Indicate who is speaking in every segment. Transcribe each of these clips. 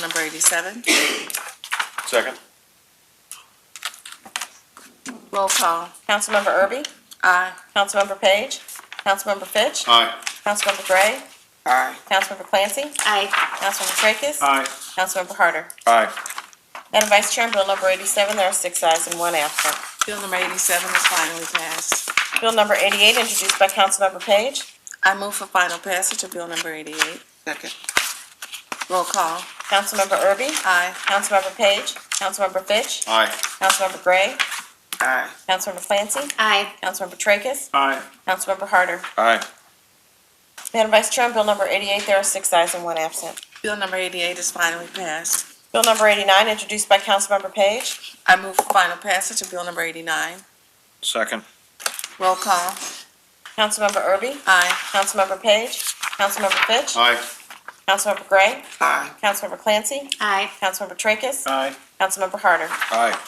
Speaker 1: Number eighty-seven,
Speaker 2: Second.
Speaker 1: roll call,
Speaker 3: Councilmember Erby?
Speaker 1: aye.
Speaker 3: Councilmember Page? Councilmember Fitch?
Speaker 2: Aye.
Speaker 3: Councilmember Gray?
Speaker 1: Aye.
Speaker 3: Councilmember Clancy?
Speaker 1: Aye.
Speaker 3: Councilmember Tracus?
Speaker 2: Aye.
Speaker 3: Councilmember Harder?
Speaker 2: Aye.
Speaker 3: Madam Vice Chair, on Bill number eighty-seven, there are six ayes and one absent.
Speaker 1: Bill number eighty-seven is finally passed.
Speaker 3: Bill number eighty-eight, introduced by Councilmember Page.
Speaker 1: I move for final passage of bill number eighty-eight. Second. Roll call,
Speaker 3: Councilmember Erby?
Speaker 1: aye.
Speaker 3: Councilmember Page? Councilmember Fitch?
Speaker 2: Aye.
Speaker 3: Councilmember Gray?
Speaker 1: Aye.
Speaker 3: Councilmember Clancy?
Speaker 4: Aye.
Speaker 3: Councilmember Tracus?
Speaker 2: Aye.
Speaker 3: Councilmember Harder?
Speaker 2: Aye.
Speaker 3: Madam Vice Chair, on Bill number eighty-eight, there are six ayes and one absent.
Speaker 1: Bill number eighty-eight is finally passed.
Speaker 3: Bill number eighty-nine, introduced by Councilmember Page.
Speaker 1: I move for final passage of bill number eighty-nine.
Speaker 2: Second.
Speaker 1: Roll call,
Speaker 3: Councilmember Erby?
Speaker 1: aye.
Speaker 3: Councilmember Page? Councilmember Fitch?
Speaker 2: Aye.
Speaker 3: Councilmember Gray?
Speaker 1: Aye.
Speaker 3: Councilmember Clancy?
Speaker 4: Aye.
Speaker 3: Councilmember Tracus?
Speaker 2: Aye.
Speaker 3: Councilmember Harder?
Speaker 2: Aye.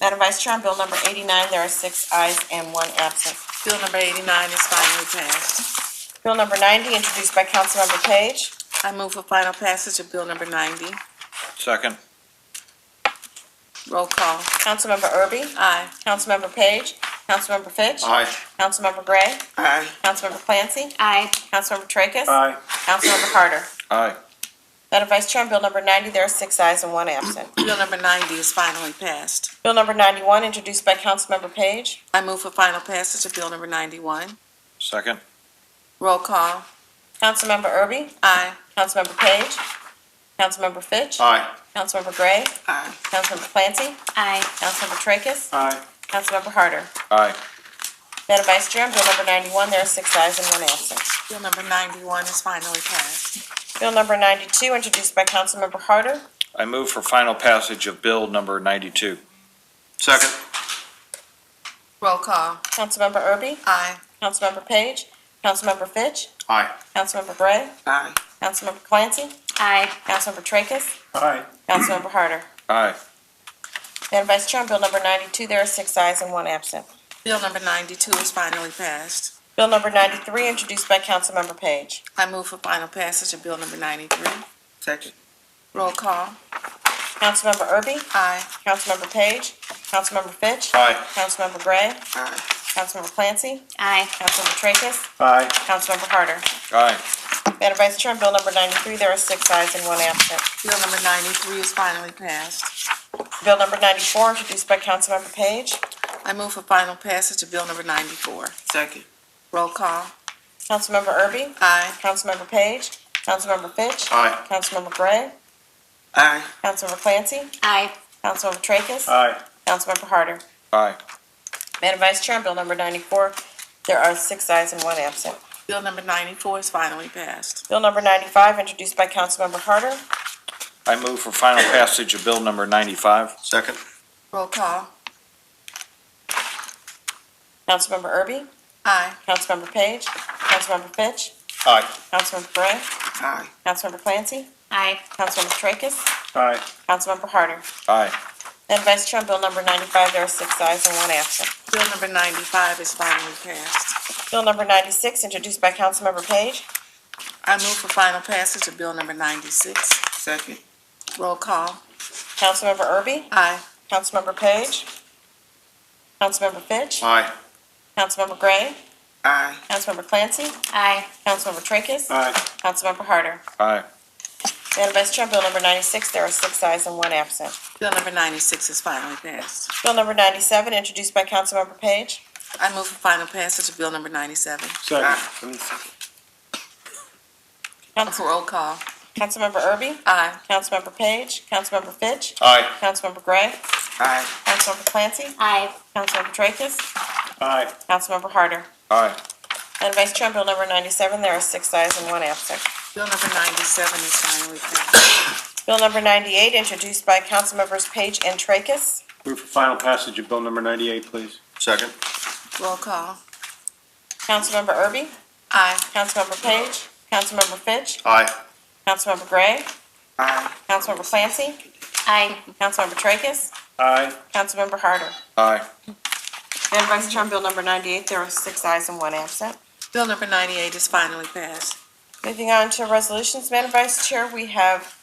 Speaker 3: Madam Vice Chair, on Bill number eighty-nine, there are six ayes and one absent.
Speaker 1: Bill number eighty-nine is finally passed.
Speaker 3: Bill number ninety, introduced by Councilmember Page.
Speaker 1: I move for final passage of bill number ninety.
Speaker 2: Second.
Speaker 1: Roll call,
Speaker 3: Councilmember Erby?
Speaker 1: aye.
Speaker 3: Councilmember Page? Councilmember Fitch?
Speaker 2: Aye.
Speaker 3: Councilmember Gray?
Speaker 1: Aye.
Speaker 3: Councilmember Clancy?
Speaker 4: Aye.
Speaker 3: Councilmember Tracus?
Speaker 2: Aye.
Speaker 3: Councilmember Harder?
Speaker 2: Aye.
Speaker 3: Madam Vice Chair, on Bill number ninety, there are six ayes and one absent.
Speaker 1: Bill number ninety is finally passed.
Speaker 3: Bill number ninety-one, introduced by Councilmember Page.
Speaker 1: I move for final passage of bill number ninety-one.
Speaker 2: Second.
Speaker 1: Roll call.
Speaker 3: Councilmember Erby?
Speaker 1: Aye.
Speaker 3: Councilmember Page? Councilmember Fitch?
Speaker 2: Aye.
Speaker 3: Councilmember Gray?
Speaker 1: Aye.
Speaker 3: Councilmember Clancy?
Speaker 4: Aye.
Speaker 3: Councilmember Tracus?
Speaker 2: Aye.
Speaker 3: Councilmember Harder?
Speaker 2: Aye.
Speaker 3: Madam Vice Chair, on Bill number ninety-one, there are six ayes and one absent.
Speaker 1: Bill number ninety-one is finally passed.
Speaker 3: Bill number ninety-two, introduced by Councilmember Harder.
Speaker 2: I move for final passage of bill number ninety-two. Second.
Speaker 1: Roll call.
Speaker 3: Councilmember Erby?
Speaker 1: Aye.
Speaker 3: Councilmember Page? Councilmember Fitch?
Speaker 2: Aye.
Speaker 3: Councilmember Gray?
Speaker 1: Aye.
Speaker 3: Councilmember Clancy?
Speaker 4: Aye.
Speaker 3: Councilmember Tracus?
Speaker 2: Aye.
Speaker 3: Councilmember Harder?
Speaker 2: Aye.
Speaker 3: Madam Vice Chair, on Bill number ninety-two, there are six ayes and one absent.
Speaker 1: Bill number ninety-two is finally passed.
Speaker 3: Bill number ninety-three, introduced by Councilmember Page.
Speaker 1: I move for final passage of bill number ninety-three. Second. Roll call.
Speaker 3: Councilmember Erby?
Speaker 1: Aye.
Speaker 3: Councilmember Page? Councilmember Fitch?
Speaker 2: Aye.
Speaker 3: Councilmember Gray?
Speaker 1: Aye.
Speaker 3: Councilmember Clancy?
Speaker 4: Aye.
Speaker 3: Councilmember Tracus?
Speaker 2: Aye.
Speaker 3: Councilmember Harder?
Speaker 2: Aye.
Speaker 3: Madam Vice Chair, on Bill number ninety-three, there are six ayes and one absent.
Speaker 1: Bill number ninety-three is finally passed.
Speaker 3: Bill number ninety-four, introduced by Councilmember Page.
Speaker 1: I move for final passage of bill number ninety-four. Second. Roll call.
Speaker 3: Councilmember Erby?
Speaker 1: Aye.
Speaker 3: Councilmember Page? Councilmember Fitch?
Speaker 2: Aye.
Speaker 3: Councilmember Gray?
Speaker 1: Aye.
Speaker 3: Councilmember Clancy?
Speaker 4: Aye.
Speaker 3: Councilmember Tracus?
Speaker 2: Aye.
Speaker 3: Councilmember Harder?
Speaker 2: Aye.
Speaker 3: Madam Vice Chair, on Bill number ninety-four, there are six ayes and one absent.
Speaker 1: Bill number ninety-four is finally passed.
Speaker 3: Bill number ninety-five, introduced by Councilmember Harder.
Speaker 2: I move for final passage of bill number ninety-five. Second.
Speaker 1: Roll call.
Speaker 3: Councilmember Erby?
Speaker 1: Aye.
Speaker 3: Councilmember Page? Councilmember Fitch?
Speaker 2: Aye.
Speaker 3: Councilmember Gray?
Speaker 1: Aye.
Speaker 3: Councilmember Clancy?
Speaker 4: Aye.
Speaker 3: Councilmember Tracus?
Speaker 2: Aye.
Speaker 3: Councilmember Harder?
Speaker 2: Aye.
Speaker 3: Madam Vice Chair, on Bill number ninety-five, there are six ayes and one absent.
Speaker 1: Bill number ninety-five is finally passed.
Speaker 3: Bill number ninety-six, introduced by Councilmember Page.
Speaker 1: I move for final passage of bill number ninety-six. Second. Roll call.
Speaker 3: Councilmember Erby?
Speaker 1: Aye.
Speaker 3: Councilmember Page? Councilmember Fitch?
Speaker 2: Aye.
Speaker 3: Councilmember Gray?
Speaker 1: Aye.
Speaker 3: Councilmember Clancy?
Speaker 4: Aye.
Speaker 3: Councilmember Tracus?
Speaker 2: Aye.
Speaker 3: Councilmember Harder?
Speaker 2: Aye.
Speaker 3: Madam Vice Chair, on Bill number ninety-six, there are six ayes and one absent.
Speaker 1: Bill number ninety-six is finally passed.
Speaker 3: Bill number ninety-seven, introduced by Councilmember Page.
Speaker 1: I move for final passage of bill number ninety-seven.
Speaker 2: Second.
Speaker 3: Council-
Speaker 1: Roll call.
Speaker 3: Councilmember Erby?
Speaker 1: Aye.
Speaker 3: Councilmember Page? Councilmember Fitch?
Speaker 2: Aye.
Speaker 3: Councilmember Gray?
Speaker 1: Aye.
Speaker 3: Councilmember Clancy?
Speaker 4: Aye.
Speaker 3: Councilmember Tracus?
Speaker 2: Aye.
Speaker 3: Councilmember Harder?
Speaker 2: Aye.
Speaker 3: Madam Vice Chair, on Bill number ninety-seven, there are six ayes and one absent.
Speaker 1: Bill number ninety-seven is finally passed.
Speaker 3: Bill number ninety-eight, introduced by Councilmembers Page and Tracus.
Speaker 5: Move for final passage of bill number ninety-eight, please.
Speaker 2: Second.
Speaker 1: Roll call.
Speaker 3: Councilmember Erby?
Speaker 1: Aye.
Speaker 3: Councilmember Page? Councilmember Fitch?
Speaker 2: Aye.
Speaker 3: Councilmember Gray?
Speaker 1: Aye.
Speaker 3: Councilmember Clancy?
Speaker 4: Aye.
Speaker 3: Councilmember Tracus?
Speaker 5: Aye.
Speaker 3: Councilmember Harder?
Speaker 2: Aye.
Speaker 3: Madam Vice Chair, on Bill number ninety-eight, there are six ayes and one absent.
Speaker 1: Bill number ninety-eight is finally passed.
Speaker 3: Moving on to resolutions, Madam Vice Chair, we have